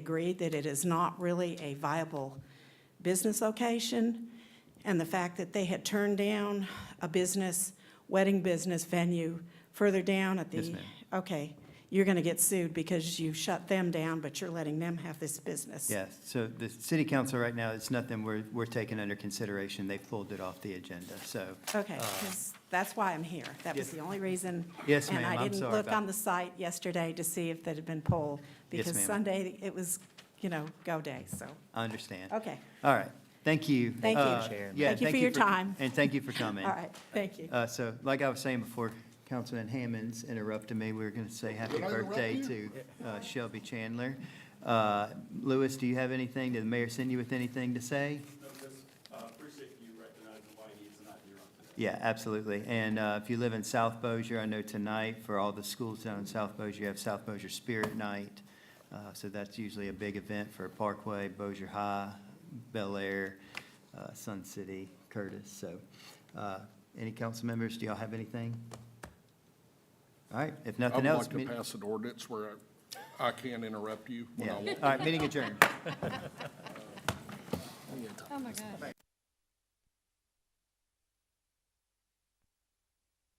agreed that it is not really a viable business location, and the fact that they had turned down a business, wedding business venue further down at the. Yes, ma'am. Okay, you're going to get sued because you shut them down, but you're letting them have this business. Yes, so the city council right now, it's nothing we're, we're taking under consideration. They pulled it off the agenda, so. Okay, uh, 'cause that's why I'm here. That was yes. the only reason. Yes, And ma'am, I I'm didn't sorry look about- on the site yesterday to see if that had been pulled, Yes, because ma'am. Sunday, it was, you know, go day, so, I understand. okay. All right, thank you. Thank you. Uh, Chair. yeah, Thank you for your time. And thank you for coming. All right, thank you. Uh, So like I was saying before, Councilman Hammond's interrupted me. We were going to say happy Did I interrupt birthday to you? uh, Shelby Chandler. Uh, Lewis, do you have anything? Did the mayor send you with anything to say? No, just uh, appreciate you recognizing why he is not here on today. Yeah, absolutely. And uh, if you live in South Bossier, I know tonight for all the schools down in South Bossier, you have South Bossier Spirit Night. Uh, So that's usually a big event for Parkway, Bossier High, Bel Air, uh, Sun City, Curtis. So uh, any council members, do y'all have anything? All right, if I would nothing else. like to meet- pass an ordinance where I can't interrupt you when Yeah, I all want. right, meeting adjourned. Oh, my God.